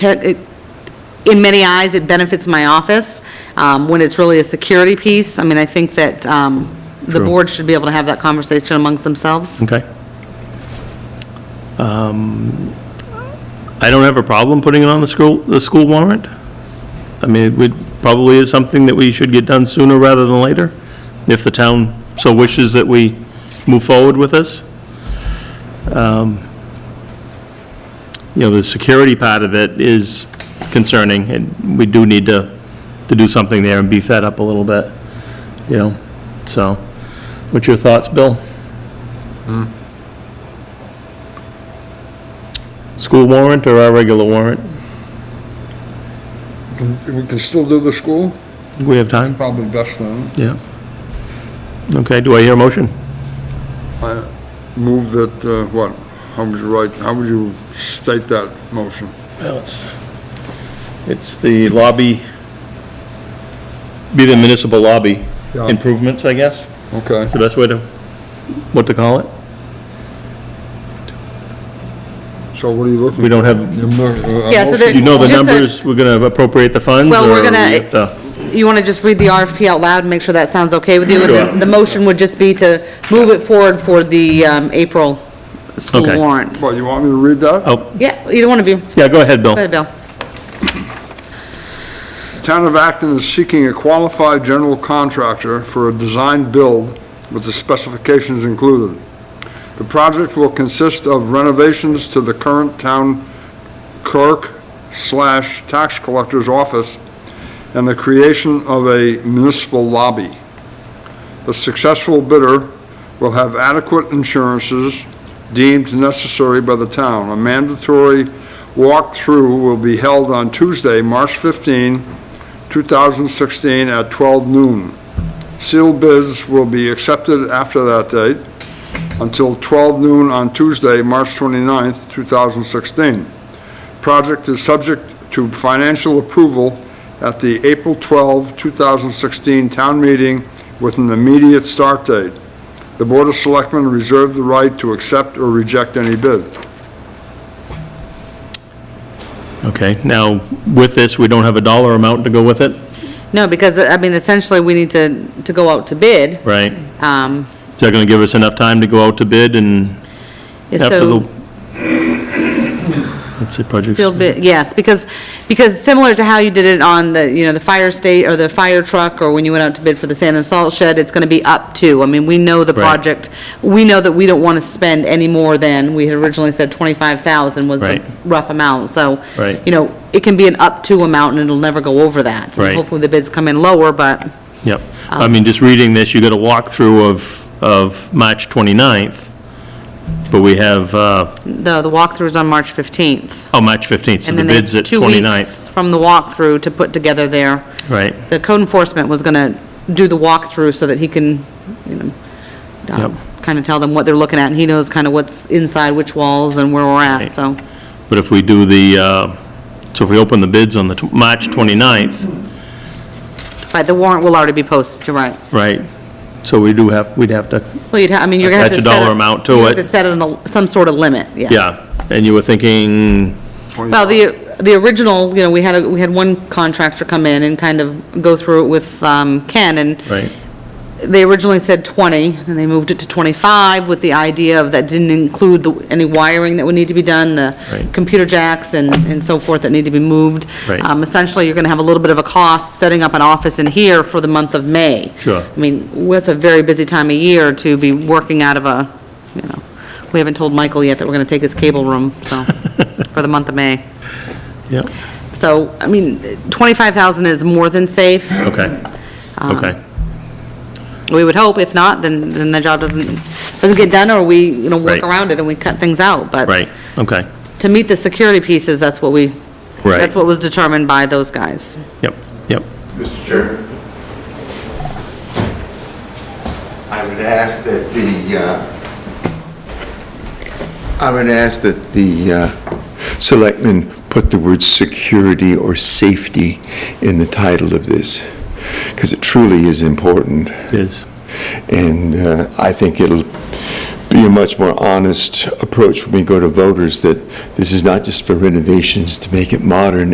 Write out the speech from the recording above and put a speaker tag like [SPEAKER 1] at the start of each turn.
[SPEAKER 1] had- it- in many eyes, it benefits my office, um, when it's really a security piece. I mean, I think that um, the
[SPEAKER 2] True.
[SPEAKER 1] board should be able to have that conversation amongst themselves.
[SPEAKER 2] Okay. Um, I don't have a problem putting it on the school, the school warrant. I mean, it would, probably is something that we should get done sooner rather than later, if the town so wishes that we move forward with this. Um, You know, the security part of it is concerning, and we do need to, to do something there and beef that up a little bit, you know? So, what's your thoughts, Bill? School warrant or our regular warrant?
[SPEAKER 3] We can still do the school,
[SPEAKER 2] We have time?
[SPEAKER 3] probably best then.
[SPEAKER 2] Yeah. Okay, do I hear a motion?
[SPEAKER 3] I Move that, uh, what, how would you write, how would you state that motion?
[SPEAKER 2] Well, it's, it's the lobby, be the municipal lobby
[SPEAKER 3] Yeah.
[SPEAKER 2] improvements, I guess,
[SPEAKER 3] Okay,
[SPEAKER 2] is the best way to, what to call it?
[SPEAKER 3] so what are you looking?
[SPEAKER 2] We don't have,
[SPEAKER 3] Your mo- uh,
[SPEAKER 1] Yeah, so
[SPEAKER 3] motion?
[SPEAKER 1] there-
[SPEAKER 2] you know the
[SPEAKER 1] Just a-
[SPEAKER 2] numbers, we're gonna appropriate the funds?
[SPEAKER 1] Well, we're
[SPEAKER 2] or
[SPEAKER 1] gonna-
[SPEAKER 2] we have to-
[SPEAKER 1] You want to just read the RFP out loud and make sure that sounds okay with you? And
[SPEAKER 2] Sure.
[SPEAKER 1] then the motion would just be to move it forward for the um, April school
[SPEAKER 2] Okay.
[SPEAKER 1] warrant.
[SPEAKER 3] What, you want me to read that?
[SPEAKER 2] Oh,
[SPEAKER 1] Yeah, either one of you. Go
[SPEAKER 2] yeah, go ahead, Bill.
[SPEAKER 1] ahead, Bill.
[SPEAKER 3] Town of Acton is seeking a qualified general contractor for a design build with the specifications included. The project will consist of renovations to the current town clerk slash tax collector's office and the creation of a municipal lobby. The successful bidder will have adequate insurances deemed necessary by the town. A mandatory walkthrough will be held on Tuesday, March 15, 2016, at 12 noon. Sealed bids will be accepted after that date until 12 noon on Tuesday, March 29, 2016. Project is subject to financial approval at the April 12, 2016 town meeting with an immediate start date. The Board of Selectmen reserve the right to accept or reject any bid.
[SPEAKER 2] Okay, now, with this, we don't have a dollar amount to go with it,
[SPEAKER 1] No, because, I mean, essentially, we need to, to go out to bid.
[SPEAKER 2] right?
[SPEAKER 1] Um,
[SPEAKER 2] Is that gonna give us enough time to go out to bid and
[SPEAKER 1] yeah,
[SPEAKER 2] After
[SPEAKER 1] so-
[SPEAKER 2] the- Let's see, projects.
[SPEAKER 1] Sealed bid, yes, because, because similar to how you did it on the, you know, the fire state, or the fire truck, or when you went out to bid for the sand and salt shed, it's gonna be up to, I mean, we know the
[SPEAKER 2] Right.
[SPEAKER 1] project, we know that we don't wanna spend any more than, we had originally said twenty-five thousand was the
[SPEAKER 2] Right.
[SPEAKER 1] rough amount, so.
[SPEAKER 2] Right.
[SPEAKER 1] You know, it can be an up to amount, and it'll never go over that.
[SPEAKER 2] Right.
[SPEAKER 1] Hopefully, the bids come in lower, but,
[SPEAKER 2] Yep. I
[SPEAKER 1] um,
[SPEAKER 2] mean, just reading this, you got a walkthrough of, of March 29th, but we have, uh,
[SPEAKER 1] the, the walkthrough's on March fifteenth.
[SPEAKER 2] oh, March 15th, so
[SPEAKER 1] And
[SPEAKER 2] the
[SPEAKER 1] then they
[SPEAKER 2] bid's
[SPEAKER 1] have
[SPEAKER 2] at
[SPEAKER 1] two
[SPEAKER 2] 29th.
[SPEAKER 1] weeks from the walkthrough to put together their,
[SPEAKER 2] Right,
[SPEAKER 1] the code enforcement was gonna do the walkthrough so that he can, you know,
[SPEAKER 2] Yep.
[SPEAKER 1] kind of tell them what they're looking at, and he knows kind of what's inside which walls and where we're at,
[SPEAKER 2] Right.
[SPEAKER 1] so.
[SPEAKER 2] but if we do the, uh, so if we open the bids on the tw- March 29th,
[SPEAKER 1] But the warrant will already be posted, you're right.
[SPEAKER 2] right, so we do have, we'd have to,
[SPEAKER 1] Well, you'd, ha- I mean, you're gonna have to
[SPEAKER 2] Attach
[SPEAKER 1] set.
[SPEAKER 2] a dollar
[SPEAKER 1] it-
[SPEAKER 2] amount to
[SPEAKER 1] you have
[SPEAKER 2] it.
[SPEAKER 1] to set it in a- some sort of limit, yeah.
[SPEAKER 2] yeah, and you were thinking,
[SPEAKER 1] Well, the, the original, you know, we had, a we had one contractor come in and kind of go through it with um, Ken, and
[SPEAKER 2] right,
[SPEAKER 1] they originally said 20, and they moved it to 25 with the idea of that didn't include the- any wiring that would need to be done, the
[SPEAKER 2] Right.
[SPEAKER 1] computer jacks and and so forth that need to be moved.
[SPEAKER 2] Right.
[SPEAKER 1] Um, Essentially, you're going to have a little bit of a cost setting up an office in here for the month of May.
[SPEAKER 2] Sure.
[SPEAKER 1] I mean, it's a very busy time of year to be working out of a, you know, we haven't told Michael yet that we're going to take his cable room, so, for the month of May.
[SPEAKER 2] yeah,
[SPEAKER 1] So, I mean, 25,000 is more than safe. Um,
[SPEAKER 2] okay, okay,
[SPEAKER 1] We would hope, if not, then, then the job doesn't, doesn't get done, or we, you know, work
[SPEAKER 2] Right.
[SPEAKER 1] around it and we cut things out, but.
[SPEAKER 2] right, okay,
[SPEAKER 1] To meet the security pieces, that's what we.
[SPEAKER 2] Right.
[SPEAKER 1] That's what was determined by those guys.
[SPEAKER 2] yep, yep,
[SPEAKER 4] Mr. Chair. I would ask that the, uh, I would ask that the uh, selectmen put the word security or safety in the title of this, because it truly is important.
[SPEAKER 2] it is,
[SPEAKER 4] And uh, I think it'll be a much more honest approach when we go to voters, that this is not just for renovations to make it modern,